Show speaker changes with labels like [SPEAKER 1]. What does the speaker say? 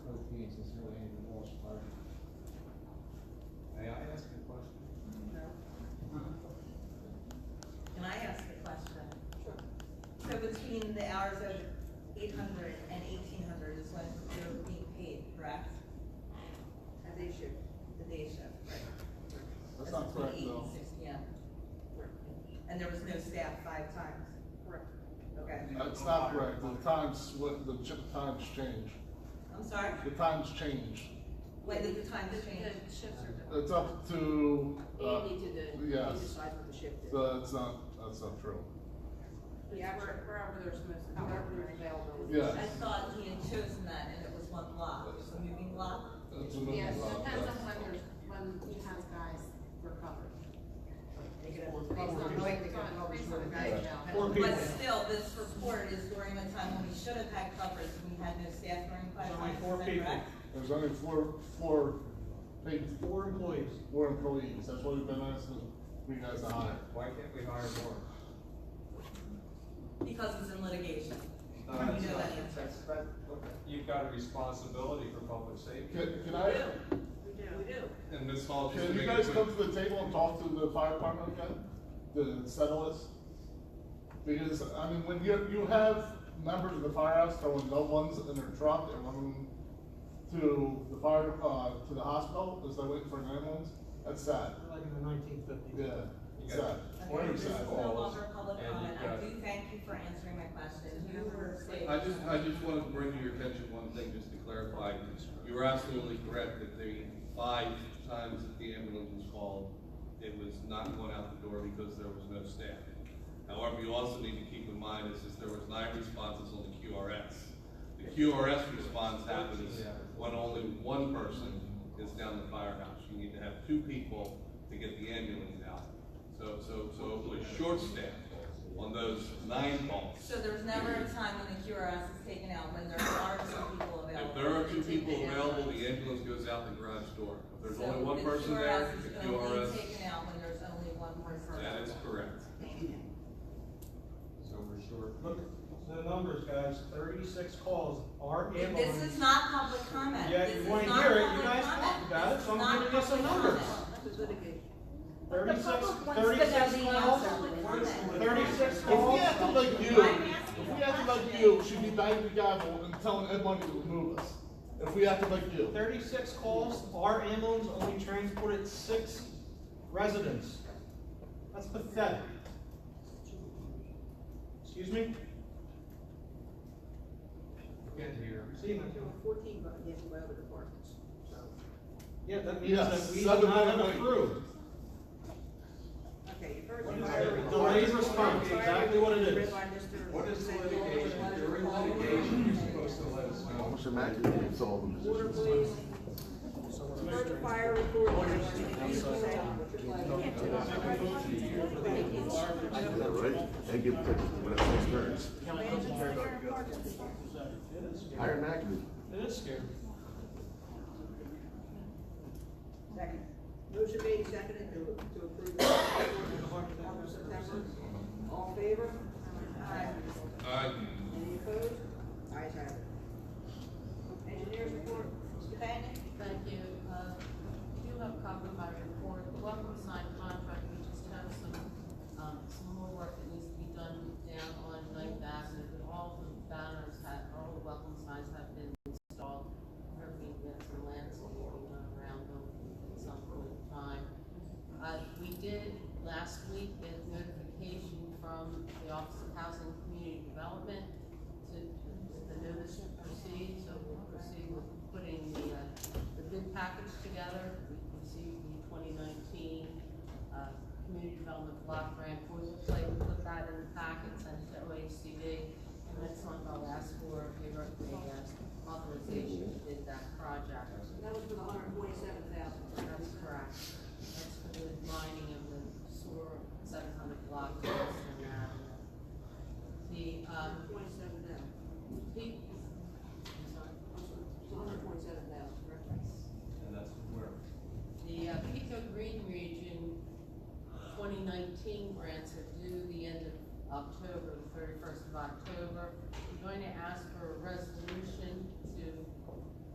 [SPEAKER 1] times change.
[SPEAKER 2] I'm sorry?
[SPEAKER 1] The times change.
[SPEAKER 2] Wait, did the times change?
[SPEAKER 3] The shifts are different.
[SPEAKER 1] It's up to, uh,
[SPEAKER 3] Andy did the, he
[SPEAKER 1] yes,
[SPEAKER 3] decides what the shift is.
[SPEAKER 1] so that's not, that's not true.
[SPEAKER 3] The actual, wherever there's most, wherever there's availability.
[SPEAKER 1] Yes.
[SPEAKER 2] I thought he had chosen that and it was one block, it was a moving block.
[SPEAKER 1] It's a moving
[SPEAKER 4] Yes,
[SPEAKER 1] lot,
[SPEAKER 4] depends on
[SPEAKER 1] yes.
[SPEAKER 4] when there's, when each house guys recover. Based on
[SPEAKER 5] Four
[SPEAKER 4] what
[SPEAKER 5] people.
[SPEAKER 4] they've done, based on
[SPEAKER 1] Yeah.
[SPEAKER 4] guys now.
[SPEAKER 5] Four people.
[SPEAKER 2] But still, this report is during a time when we should have had coverage and we had no staff during
[SPEAKER 5] There's
[SPEAKER 2] five
[SPEAKER 5] only
[SPEAKER 2] times,
[SPEAKER 5] four
[SPEAKER 2] is that correct?
[SPEAKER 1] There's only four, four, big,
[SPEAKER 5] Four employees.
[SPEAKER 1] four employees, that's what we've been asking you guys to hire.
[SPEAKER 6] Why can't we hire more?
[SPEAKER 2] Because it's in litigation.
[SPEAKER 6] Uh,
[SPEAKER 2] You know
[SPEAKER 6] that's
[SPEAKER 2] that
[SPEAKER 6] not-
[SPEAKER 2] answer.
[SPEAKER 6] that's- that- look, You've got a responsibility for public safety.
[SPEAKER 1] Can, can I,
[SPEAKER 3] We do, we do.
[SPEAKER 6] And Ms. Hall just
[SPEAKER 1] can you
[SPEAKER 6] made
[SPEAKER 1] guys
[SPEAKER 6] a
[SPEAKER 1] come
[SPEAKER 6] quick.
[SPEAKER 1] to the table and talk to the fire department again, to settle this? Because, I mean, when you, you have members of the firehouse throwing no ones in their truck and running to the fire, uh, to the hospital, as they're waiting for an ambulance, that's sad.
[SPEAKER 5] Like in the nineteen fifties.
[SPEAKER 1] Yeah,
[SPEAKER 6] You
[SPEAKER 1] sad,
[SPEAKER 6] got twenty
[SPEAKER 1] very
[SPEAKER 2] This
[SPEAKER 1] sad.
[SPEAKER 2] is no longer public
[SPEAKER 6] And
[SPEAKER 2] comment.
[SPEAKER 6] you've
[SPEAKER 2] I
[SPEAKER 6] got-
[SPEAKER 2] do thank you for answering my question. You were safe.
[SPEAKER 7] I just, I just wanted to bring to your attention one thing, just to clarify. You were absolutely correct that the five times that the ambulance was called, it was not going out the door because there was no staff. However, you also need to keep in mind is, is there was nine responses on the QRS. The QRS response happens when only one person is down the firehouse. You need to have two people to get the ambulance out. So, so, so it was short staff on those nine calls.
[SPEAKER 2] So there's never a time when the QRS is taken out, when there are two people available.
[SPEAKER 7] If there are
[SPEAKER 2] to
[SPEAKER 7] two
[SPEAKER 2] take
[SPEAKER 7] people
[SPEAKER 2] the
[SPEAKER 7] available, the
[SPEAKER 2] ambulance.
[SPEAKER 7] ambulance goes out the garage door. If there's
[SPEAKER 2] So
[SPEAKER 7] only one
[SPEAKER 2] the
[SPEAKER 7] person
[SPEAKER 2] QRS
[SPEAKER 7] there, the
[SPEAKER 2] is only
[SPEAKER 7] QRS,
[SPEAKER 2] Taken out when there's only one person.
[SPEAKER 7] that is correct.
[SPEAKER 6] So we're short.
[SPEAKER 5] Look at the numbers, guys, thirty-six calls, our ambulance.
[SPEAKER 2] This is not public comment.
[SPEAKER 5] Yeah,
[SPEAKER 2] This
[SPEAKER 5] you
[SPEAKER 2] is
[SPEAKER 5] wanna
[SPEAKER 2] not
[SPEAKER 5] hear it, you
[SPEAKER 2] public
[SPEAKER 5] guys talk
[SPEAKER 2] comment.
[SPEAKER 5] about it,
[SPEAKER 2] This
[SPEAKER 5] so I'm
[SPEAKER 2] is not
[SPEAKER 5] giving you some
[SPEAKER 2] public
[SPEAKER 5] numbers.
[SPEAKER 2] comment.
[SPEAKER 3] That's litigation.
[SPEAKER 5] 36 36 calls,
[SPEAKER 2] Public comment.
[SPEAKER 5] thirty-six
[SPEAKER 1] If
[SPEAKER 5] calls.
[SPEAKER 1] we acted like you, if we acted like you, she'd be banging the gavel and telling everybody to remove us. If we acted like you.
[SPEAKER 5] Thirty-six calls, our ambulance only transported six residents. That's pathetic. Excuse me?
[SPEAKER 6] Get here.
[SPEAKER 5] See, my-
[SPEAKER 3] There were fourteen by the end of the departments, so.
[SPEAKER 5] yeah, that means
[SPEAKER 1] Yes,
[SPEAKER 5] that we
[SPEAKER 1] seven
[SPEAKER 5] did not have
[SPEAKER 1] point
[SPEAKER 5] a
[SPEAKER 1] eight.
[SPEAKER 5] crew.
[SPEAKER 3] Okay, you heard
[SPEAKER 6] What
[SPEAKER 3] the
[SPEAKER 6] is
[SPEAKER 3] fire.
[SPEAKER 6] it?
[SPEAKER 5] Delayed response,
[SPEAKER 3] Fire-
[SPEAKER 5] exactly what it is.
[SPEAKER 3] Red line district.
[SPEAKER 6] What is litigation? During litigation, you're supposed to let us know.
[SPEAKER 8] Mr. Mackey, you can solve the
[SPEAKER 3] Order
[SPEAKER 8] positions.
[SPEAKER 3] please. Heard the fire report.
[SPEAKER 8] Is that right? And give pictures when it's next turns. Hire Mackey.
[SPEAKER 5] It is scary.
[SPEAKER 3] Second. Motion made, and seconded to to approve the fire report for the month of September. All in favor? Aye.
[SPEAKER 7] Uh,
[SPEAKER 3] Any opposed? Ayes have it. Engineers report.
[SPEAKER 2] Mr. Bennett?
[SPEAKER 4] Thank you. Uh, you have a copy of my report, the welcome sign contract, we just have some, um, some more work that needs to be done down on Ninth Avenue. All the banners have, all the welcome signs have been installed, we're going to get some landscaping done around them at some point in time. Uh, we did last week get notification from the Office of Housing and Community Development to, the notice to proceed, so we'll proceed with putting the, uh, the bid package together. We received the twenty nineteen, uh, Community Development Block Grant, we'll play, we put that in the packet, send it to OHCD. And next month I'll ask for, give her the uh, authorization to bid that project.
[SPEAKER 3] That was for the hundred and forty-seven thousand.
[SPEAKER 4] That's correct. That's for the mining of the sewer, seven hundred block of Western Avenue. The, um,
[SPEAKER 3] Uh, Twenty-seven thousand.
[SPEAKER 4] the, I'm sorry.
[SPEAKER 3] It's hundred and forty-seven thousand, correct?
[SPEAKER 6] And that's where.
[SPEAKER 4] The uh, Pico Green Region twenty nineteen grants are due the end of October, the thirty-first of October. I'm going to ask for a res,